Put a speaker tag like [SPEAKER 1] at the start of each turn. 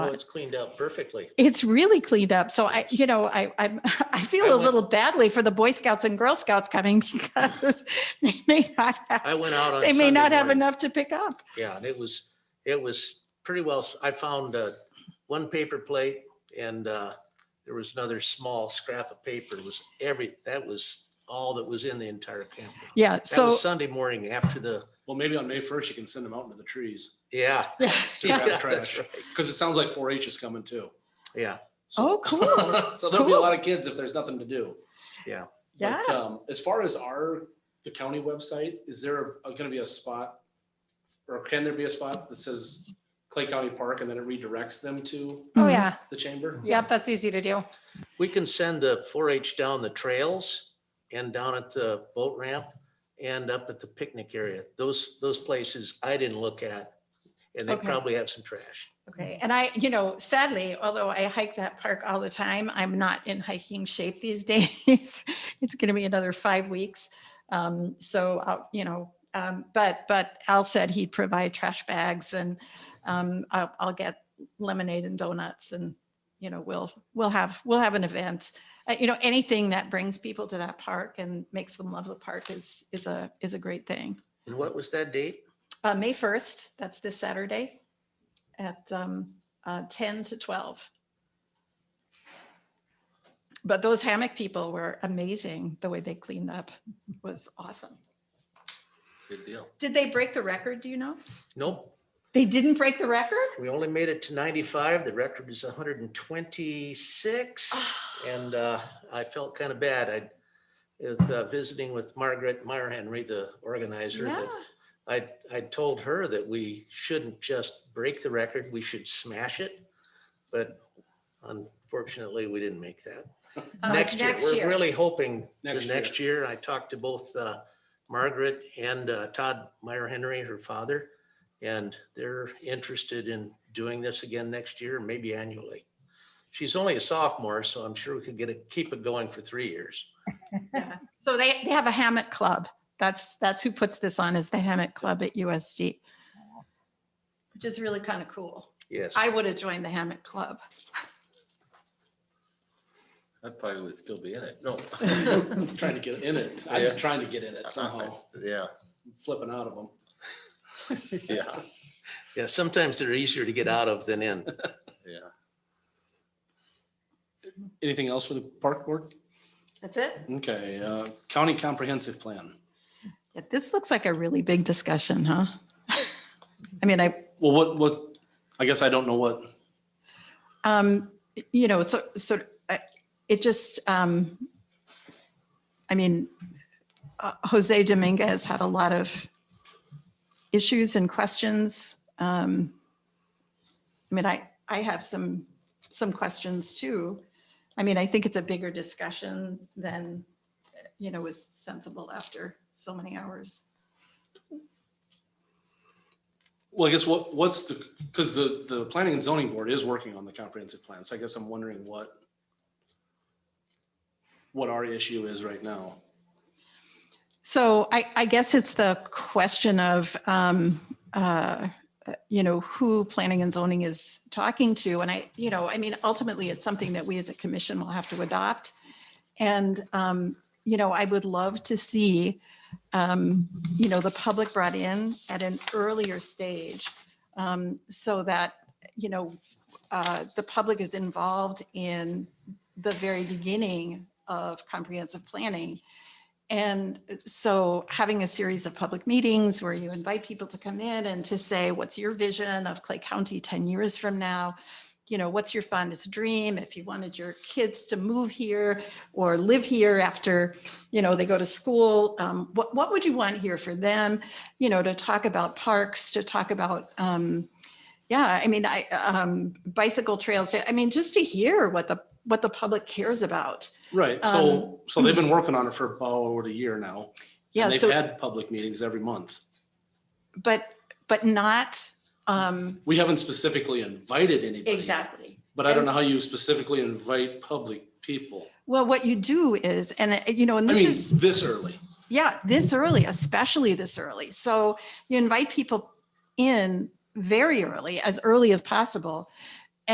[SPEAKER 1] Oh, it's cleaned up perfectly.
[SPEAKER 2] It's really cleaned up. So I, you know, I, I'm, I
[SPEAKER 1] I
[SPEAKER 2] feel a
[SPEAKER 1] went-
[SPEAKER 2] little badly for the Boy Scouts and Girl Scouts coming because they may not
[SPEAKER 1] I
[SPEAKER 2] have,
[SPEAKER 1] went out on.
[SPEAKER 2] they may
[SPEAKER 1] Sunday
[SPEAKER 2] not have
[SPEAKER 1] morning.
[SPEAKER 2] enough to pick up.
[SPEAKER 1] Yeah, and it was, it was pretty well, I found uh, one paper plate and uh, there was another small scrap of paper. It was every, that was all that was in the entire campground.
[SPEAKER 2] Yeah.
[SPEAKER 1] That
[SPEAKER 2] So
[SPEAKER 1] was Sunday morning after the,
[SPEAKER 3] Well, maybe on May first, you can send them out into the trees
[SPEAKER 1] yeah.
[SPEAKER 3] to
[SPEAKER 2] Yeah,
[SPEAKER 3] grab the
[SPEAKER 1] yeah,
[SPEAKER 3] trash,
[SPEAKER 1] that's right.
[SPEAKER 3] because it sounds like four H is coming too.
[SPEAKER 1] Yeah,
[SPEAKER 2] Oh,
[SPEAKER 3] So-
[SPEAKER 2] cool.
[SPEAKER 3] So there'll be a
[SPEAKER 2] Cool.
[SPEAKER 3] lot of kids if there's nothing to do.
[SPEAKER 2] yeah.
[SPEAKER 3] But
[SPEAKER 1] uh,
[SPEAKER 3] um, as far as our, the county website, is there a- gonna be a spot? Or can there be a spot that says Clay County Park and then it redirects them to
[SPEAKER 4] Oh,
[SPEAKER 2] Mhm.
[SPEAKER 4] yeah.
[SPEAKER 3] the chamber?
[SPEAKER 4] Yep, that's easy to do.
[SPEAKER 1] we can send the four H down the trails and down at the boat ramp and up at the picnic area. Those, those places I didn't look at. And they
[SPEAKER 2] Okay.
[SPEAKER 1] probably have some trash.
[SPEAKER 2] Okay. And I, you know, sadly, although I hike that park all the time, I'm not in hiking shape these days. It's going to be another five weeks. Um, so, I'll, you know, um, but, but Al said he'd provide trash bags and, um, I'll, I'll get lemonade and donuts and, you know, we'll, we'll have, we'll have an event. Uh, you know, anything that brings people to that park and makes them love the park is, is a, is a great thing.
[SPEAKER 1] And what was that date?
[SPEAKER 2] Uh, May 1st, that's this Saturday at um, uh, 10 to 12. But those hammock people were amazing. The way they cleaned up was awesome.
[SPEAKER 3] Good deal.
[SPEAKER 2] Did they break the record? Do you know?
[SPEAKER 1] Nope.
[SPEAKER 2] They didn't break the record?
[SPEAKER 1] We only made it to 95. The record is 126. And uh, I felt kind of bad. I, with, uh, visiting with Margaret Meyer Henry, the organizer,
[SPEAKER 2] Yeah.
[SPEAKER 1] that I, I told her that we shouldn't just break the record, we should smash it. But unfortunately, we didn't make that.
[SPEAKER 2] Uh,
[SPEAKER 1] Next year, we're really hoping
[SPEAKER 3] Next
[SPEAKER 1] to
[SPEAKER 3] year.
[SPEAKER 1] next year. I talked to both uh, Margaret and uh, Todd Meyer Henry, her father. And they're interested in doing this again next year, maybe annually. She's only a sophomore, so I'm sure we could get it, keep it going for three years.
[SPEAKER 2] So they, they have a hammock club. That's, that's who puts this on is the hammock club at USD. Which is really kind of cool.
[SPEAKER 1] Yes.
[SPEAKER 2] I would have joined the hammock club.
[SPEAKER 5] I probably would still be in it.
[SPEAKER 1] No.
[SPEAKER 3] Trying to get in it. I've
[SPEAKER 5] Yeah.
[SPEAKER 3] been trying to get in it somehow,
[SPEAKER 5] Yeah,
[SPEAKER 3] flipping out of them.
[SPEAKER 5] yeah,
[SPEAKER 1] Yeah, sometimes they're easier to get out of than in.
[SPEAKER 5] yeah.
[SPEAKER 3] Anything else for the park board?
[SPEAKER 2] That's it?
[SPEAKER 3] Okay, uh, county comprehensive plan.
[SPEAKER 2] Yeah, This looks like a really big discussion, huh? I mean, I,
[SPEAKER 3] Well, what was, I guess I don't know what,
[SPEAKER 2] um, you know, so, so uh, it just, um, I mean, uh, Jose Dominguez had a lot of issues and questions. Um, I mean, I, I have some, some questions too. I mean, I think it's a bigger discussion than, you know, was sensible after so many hours.
[SPEAKER 3] well, I guess what, what's the, because the, the planning and zoning board is working on the comprehensive plan, so I guess I'm wondering what what our issue is right now.
[SPEAKER 2] So I, I guess it's the question of, um, uh, you know, who planning and zoning is talking to. And I, you know, I mean, ultimately, it's something that we as a commission will have to adopt. And, um, you know, I would love to see, um, you know, the public brought in at an earlier stage um, so that, you know, uh, the public is involved in the very beginning of comprehensive planning. And so having a series of public meetings where you invite people to come in and to say, what's your vision of Clay County 10 years from now? You know, what's your fondest dream? If you wanted your kids to move here or live here after, you know, they go to school, um, what, what would you want here for them? You know, to talk about parks, to talk about, um, yeah, I mean, I, um, bicycle trails, I mean, just to hear what the, what the public cares about.
[SPEAKER 3] Right,
[SPEAKER 2] Um,
[SPEAKER 3] so, so they've been working on it for about over a year now.
[SPEAKER 2] Yeah.
[SPEAKER 3] And they've
[SPEAKER 2] so-
[SPEAKER 3] had public meetings every month.
[SPEAKER 2] but but not um
[SPEAKER 3] We haven't specifically invited anybody.
[SPEAKER 2] exactly
[SPEAKER 3] But I don't know how you specifically invite public people.
[SPEAKER 2] well what you do is and uh, you know and
[SPEAKER 3] I
[SPEAKER 2] this
[SPEAKER 3] mean,
[SPEAKER 2] is
[SPEAKER 3] this early.
[SPEAKER 2] yeah this early especially this early so you invite people in very early as early as possible